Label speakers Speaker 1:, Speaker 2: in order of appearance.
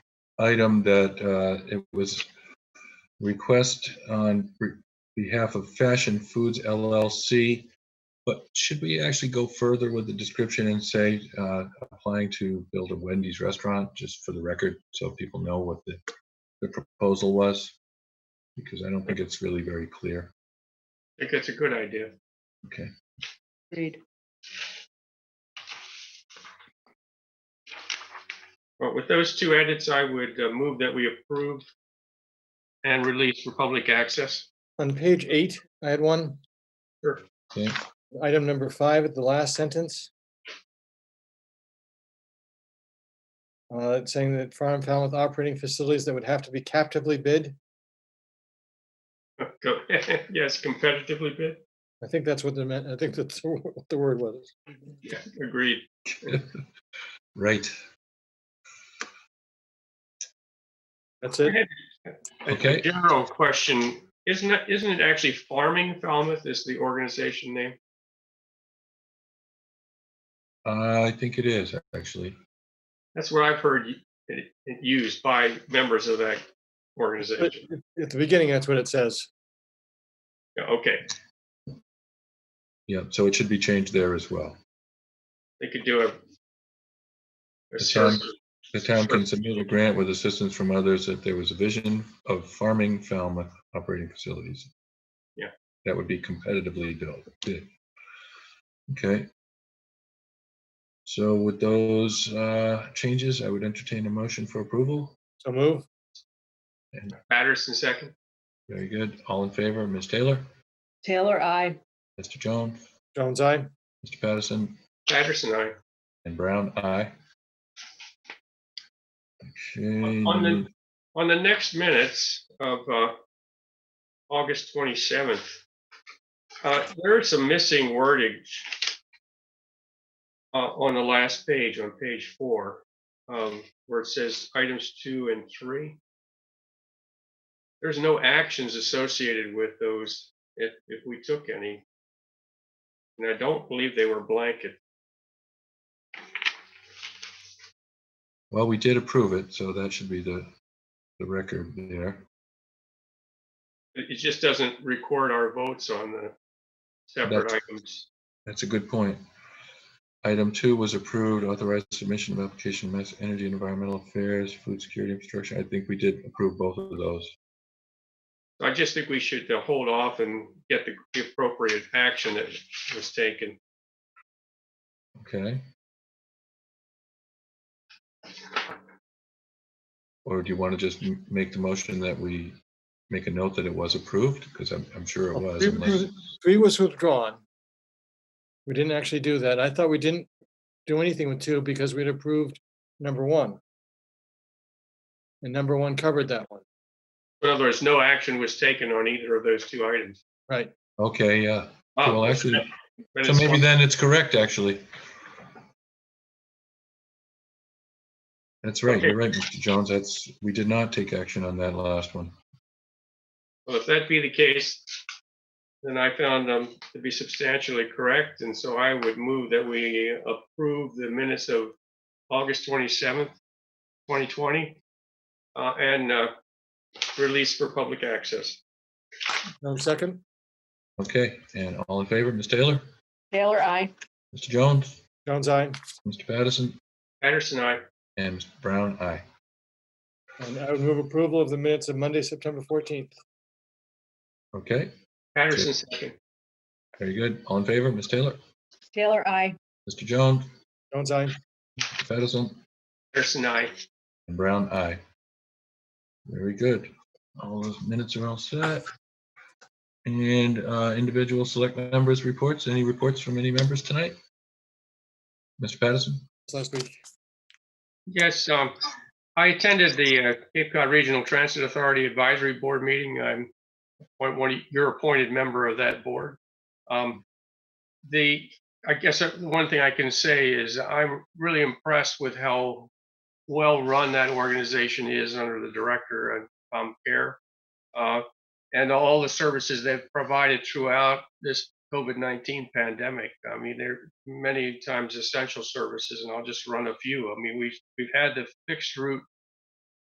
Speaker 1: item that uh, it was request on re- behalf of Fashion Foods LLC. But should we actually go further with the description and say uh, applying to build a Wendy's restaurant, just for the record, so people know what the the proposal was? Because I don't think it's really very clear.
Speaker 2: I think that's a good idea.
Speaker 1: Okay.
Speaker 3: Agreed.
Speaker 2: Well, with those two edits, I would uh, move that we approve and release for public access.
Speaker 4: On page eight, I had one.
Speaker 2: Sure.
Speaker 1: Yeah.
Speaker 4: Item number five, at the last sentence. Uh, it's saying that farm found with operating facilities that would have to be captively bid.
Speaker 2: Go- Yes, competitively bid.
Speaker 4: I think that's what they meant. I think that's what the word was.
Speaker 2: Yeah, agreed.
Speaker 1: Right.
Speaker 4: That's it.
Speaker 2: A- a
Speaker 1: Okay.
Speaker 2: General question, isn't it, isn't it actually Farming Falmouth is the organization name?
Speaker 1: Uh, I think it is, actually.
Speaker 2: That's what I've heard y- it it used by members of that
Speaker 4: But
Speaker 2: organization.
Speaker 4: At the beginning, that's what it says.
Speaker 2: Yeah, Okay,
Speaker 1: Yeah, so it should be changed there as well.
Speaker 2: they could do a- a.
Speaker 1: It's on-
Speaker 2: search.
Speaker 1: The town can submit a grant with assistance from others if there was a vision of farming Falmouth operating facilities.
Speaker 2: Yeah.
Speaker 1: That would be competitively built. bid. Okay. So with those uh, changes, I would entertain a motion for approval.
Speaker 4: So move.
Speaker 2: Patterson second,
Speaker 1: Very good. All in favor, Ms. Taylor,
Speaker 3: Taylor, I.
Speaker 1: Mr. Jones,
Speaker 4: Jones, I.
Speaker 1: Mr. Patterson,
Speaker 2: Patterson, aye.
Speaker 1: and Brown, aye. Okay.
Speaker 2: On the- On the next minutes of uh, August 27th, uh, there is some missing wordage uh, on the last page, on page four, um, where it says items two and three. There's no actions associated with those if, if we took any. And I don't believe they were blanket.
Speaker 1: Well, we did approve it, so that should be the, the record there.
Speaker 2: It it just doesn't record our votes on the separate
Speaker 1: That's-
Speaker 2: items.
Speaker 1: That's a good point. Item two was approved, authorized submission of application, mass energy and environmental affairs, food security infrastructure. I think we did approve both of those.
Speaker 2: I just think we should uh, hold off and get the- the appropriate action that was taken.
Speaker 1: Okay. Or do you want to just m- make the motion that we make a note that it was approved? Because I'm, I'm sure it was.
Speaker 4: Three
Speaker 1: unless-
Speaker 4: was- three was withdrawn. We didn't actually do that. I thought we didn't do anything with two because we'd approved number one. And number one covered that one,
Speaker 2: In other words, no action was taken on either of those two items.
Speaker 4: right?
Speaker 1: Okay, yeah.
Speaker 2: Ah,
Speaker 1: Well, actually,
Speaker 2: but
Speaker 1: So
Speaker 2: it's-
Speaker 1: maybe then it's correct, actually. That's right, you're right, Mr. Jones. That's, we did not take action on that last one.
Speaker 2: Well, if that be the case, then I found them to be substantially correct, and so I would move that we approve the minutes of August 27th, 2020, uh, and uh, release for public access.
Speaker 4: No second,
Speaker 1: Okay, and all in favor, Ms. Taylor,
Speaker 3: Taylor, I.
Speaker 1: Mr. Jones,
Speaker 4: Jones, I,
Speaker 1: Mr. Patterson,
Speaker 2: Patterson, I,
Speaker 1: and Mr. Brown, aye.
Speaker 4: and I would move approval of the minutes of Monday, September fourteenth.
Speaker 1: Okay,
Speaker 2: Patterson second,
Speaker 1: very good. All in favor, Ms. Taylor,
Speaker 3: Taylor, I.
Speaker 1: Mr. Jones,
Speaker 4: Jones, I,
Speaker 1: Mr. Patterson,
Speaker 2: Patterson, I.
Speaker 1: and Brown, aye. Very good. All those minutes are all set. And uh, individual select members' reports, any reports from any members tonight? Mr. Patterson?
Speaker 4: last week.
Speaker 2: Yes, um, I attended the uh, Cape Cod Regional Transit Authority Advisory Board meeting. I'm appoint- one, of- you're appointed member of that board. Um, The, I guess uh, the one thing I can say is I'm really impressed with how well-run that organization is under the director, uh, Tom Kerr, uh, and all the services they've provided throughout this COVID-19 pandemic. I mean, they're many times essential services, and I'll just run a few. I mean, we've, we've had the fixed route